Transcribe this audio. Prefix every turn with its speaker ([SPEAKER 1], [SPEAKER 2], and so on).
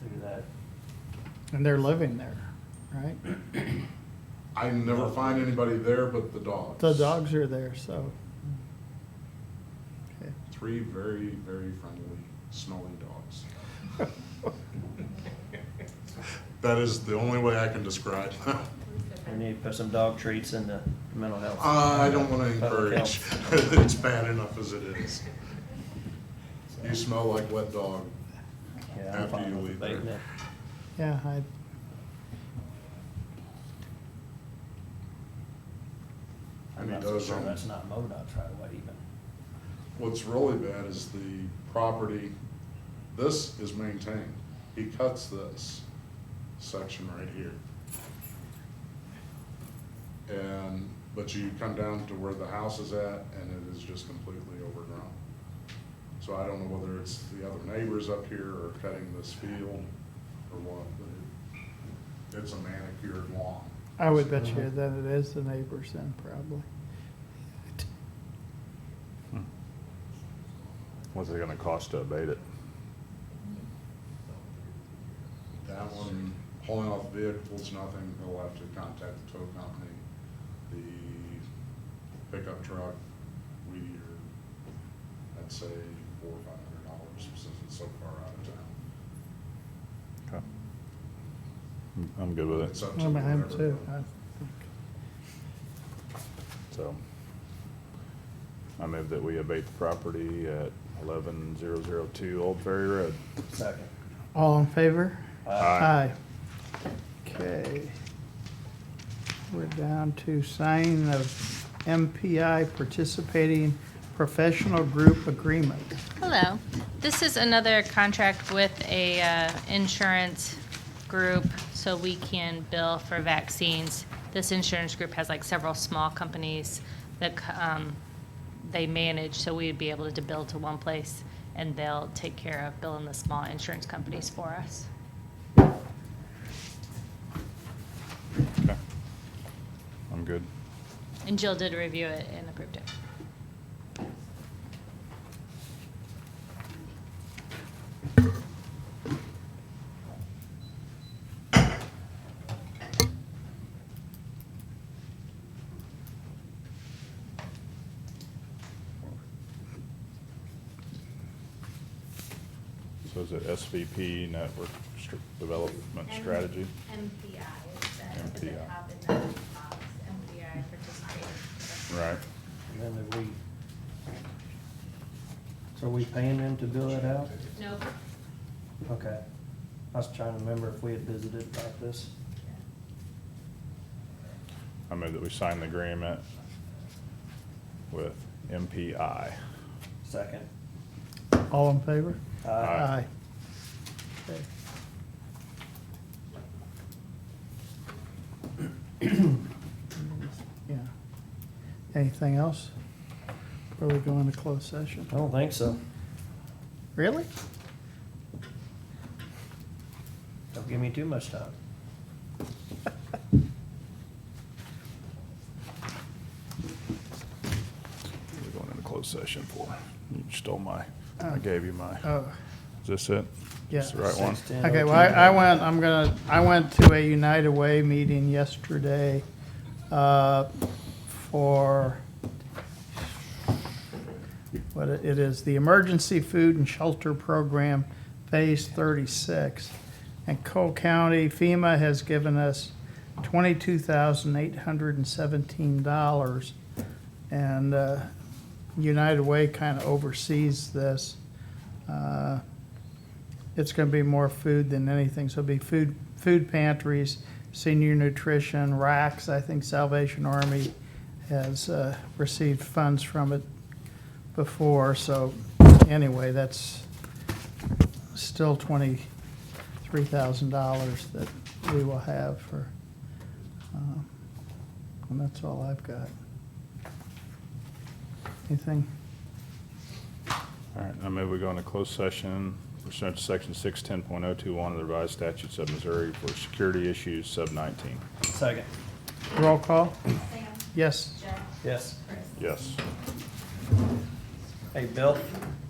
[SPEAKER 1] through that.
[SPEAKER 2] And they're living there, right?
[SPEAKER 3] I never find anybody there but the dogs.
[SPEAKER 2] The dogs are there, so. Okay.
[SPEAKER 3] Three very, very friendly, smelly dogs. That is the only way I can describe them.
[SPEAKER 1] We need to put some dog treats in the mental health.
[SPEAKER 3] Uh, I don't want to
[SPEAKER 1] Public
[SPEAKER 3] encourage.
[SPEAKER 1] health.
[SPEAKER 3] It's bad enough as it is. You smell like wet dog.
[SPEAKER 1] Yeah, I'm
[SPEAKER 3] after
[SPEAKER 1] fine
[SPEAKER 3] you
[SPEAKER 1] with
[SPEAKER 3] leave there.
[SPEAKER 1] abating it.
[SPEAKER 2] Yeah, I,
[SPEAKER 1] I'm
[SPEAKER 3] And
[SPEAKER 1] not
[SPEAKER 3] he
[SPEAKER 1] so
[SPEAKER 3] does,
[SPEAKER 1] sure
[SPEAKER 3] um,
[SPEAKER 1] that's not MoDOT's right away even.
[SPEAKER 3] What's really bad is the property, this is maintained. He cuts this section right here. And, but you come down to where the house is at and it is just completely overgrown. So I don't know whether it's the other neighbors up here or cutting this field or what, but it- it's a manicured lawn.
[SPEAKER 2] I would bet you that it is the neighbors then, probably.
[SPEAKER 4] What's it gonna cost to abate it?
[SPEAKER 3] That one, pulling off vehicles, nothing, he'll have to contact the tow company, the pickup truck, Weedier. I'd say four or five hundred dollars since it's so far out of town.
[SPEAKER 4] Okay. I'm- I'm good with
[SPEAKER 3] It's
[SPEAKER 4] it,
[SPEAKER 3] up to
[SPEAKER 2] I'm behind
[SPEAKER 3] whatever.
[SPEAKER 2] too. I think.
[SPEAKER 4] so. I move that we abate the property at eleven zero zero two Old Ferry Road.
[SPEAKER 1] Second.
[SPEAKER 2] All in favor?
[SPEAKER 1] Uh,
[SPEAKER 4] Aye.
[SPEAKER 2] Okay. We're down to signing of MPI participating professional group agreement.
[SPEAKER 5] Hello. This is another contract with a uh, insurance group, so we can bill for vaccines. This insurance group has like several small companies that c- um, they manage, so we'd be able to bill to one place, and they'll take care of billing the small insurance companies for us.
[SPEAKER 4] Okay. I'm good.
[SPEAKER 5] And Jill did review it and approved it.
[SPEAKER 4] So is it SVP, Network Str- Development
[SPEAKER 6] M-
[SPEAKER 4] Strategy?
[SPEAKER 6] MPI is the, at the
[SPEAKER 4] MPI.
[SPEAKER 6] top in the box, MPI participating.
[SPEAKER 4] Right.
[SPEAKER 1] And then if we, so are we paying them to bill it out?
[SPEAKER 5] No.
[SPEAKER 1] Okay. I was trying to remember if we had visited about this.
[SPEAKER 4] I move that we sign the agreement with MPI.
[SPEAKER 1] Second.
[SPEAKER 2] All in favor?
[SPEAKER 1] Uh,
[SPEAKER 4] Aye.
[SPEAKER 2] Okay. Yeah. Anything else? Before we go into closed session?
[SPEAKER 1] I don't think so.
[SPEAKER 2] Really?
[SPEAKER 1] Don't give me too much time.
[SPEAKER 4] We're going into closed session for, you stole my, I
[SPEAKER 2] Oh.
[SPEAKER 4] gave you my,
[SPEAKER 2] Oh,
[SPEAKER 4] is this it?
[SPEAKER 2] yeah.
[SPEAKER 4] Is this the right one?
[SPEAKER 1] 16.
[SPEAKER 2] Okay, well, I I went, I'm gonna, I went to a United Way meeting yesterday uh, for, what it it is, the Emergency Food and Shelter Program Phase 36. And Cole County FEMA has given us $22,817. And uh, United Way kind of oversees this. Uh, it's going to be more food than anything. So it'll be food, food pantries, senior nutrition, racks. I think Salvation Army has uh, received funds from it before. So anyway, that's still twenty-three thousand dollars that we will have for, um, and that's all I've got. Anything?
[SPEAKER 4] All right, I move we go into closed session pursuant to section six ten point oh two one of the revised statutes of Missouri for security issues sub nineteen.
[SPEAKER 1] Second.
[SPEAKER 2] Roll call?
[SPEAKER 6] Sam,
[SPEAKER 2] Yes.
[SPEAKER 6] Jeff,
[SPEAKER 1] Yes.
[SPEAKER 6] Chris.
[SPEAKER 4] Yes.
[SPEAKER 1] Hey, Bill, Uh,